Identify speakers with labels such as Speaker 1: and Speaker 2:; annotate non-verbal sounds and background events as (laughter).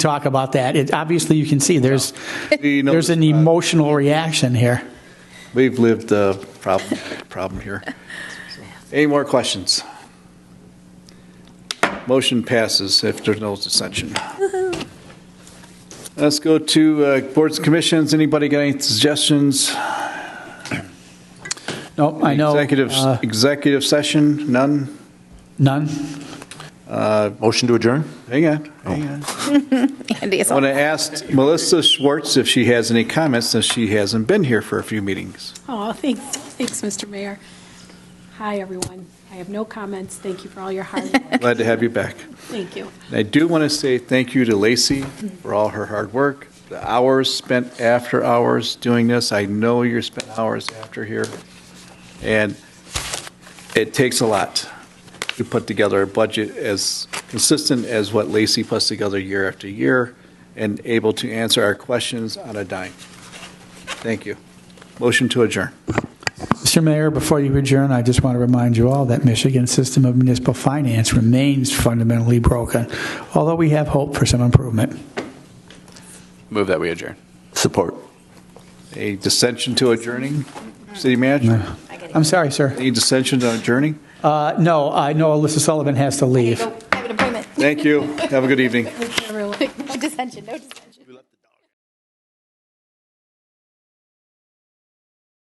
Speaker 1: talk about that. It, obviously, you can see there's
Speaker 2: You know, uh,
Speaker 1: there's an emotional reaction here.
Speaker 2: We've lived the problem, problem here. Any more questions? Motion passes if there's no dissension. Let's go to uh, boards and commissions. Anybody got any suggestions?
Speaker 1: Nope, I know.
Speaker 2: Executive,
Speaker 1: uh,
Speaker 2: executive session, none?
Speaker 1: none.
Speaker 3: Motion to adjourn?
Speaker 2: Hang on, hang
Speaker 1: Oh.
Speaker 2: on.
Speaker 4: Andy is
Speaker 2: I
Speaker 4: all-
Speaker 2: want to ask Melissa Schwartz if she has any comments, since she hasn't been here for a few meetings.
Speaker 5: Oh, thanks, thanks, Mr. Mayor. Hi, everyone. I have no comments. Thank you for all your hard
Speaker 2: (laughs)
Speaker 5: work.
Speaker 2: Glad to have you back.
Speaker 5: Thank you.
Speaker 2: And I do want to say thank you to Lacey for all her hard work, the hours spent after hours doing this. I know you're spent hours after here, and it takes a lot to put together a budget as consistent as what Lacey puts together year after year and able to answer our questions on a dime. Thank you. Motion to adjourn.
Speaker 1: Mr. Mayor, before you adjourn, I just want to remind you all that Michigan's system of municipal finance remains fundamentally broken, although we have hope for some improvement.
Speaker 6: Move that we adjourn.
Speaker 3: Support.
Speaker 2: A dissension to adjourning, city manager?
Speaker 1: I'm sorry, sir.
Speaker 2: Any dissension to adjourning?
Speaker 1: Uh, no, I know Alyssa Sullivan has to leave.
Speaker 4: Go- I have an appointment.
Speaker 2: Thank you. Have a good evening.
Speaker 4: No dissension, no dissension.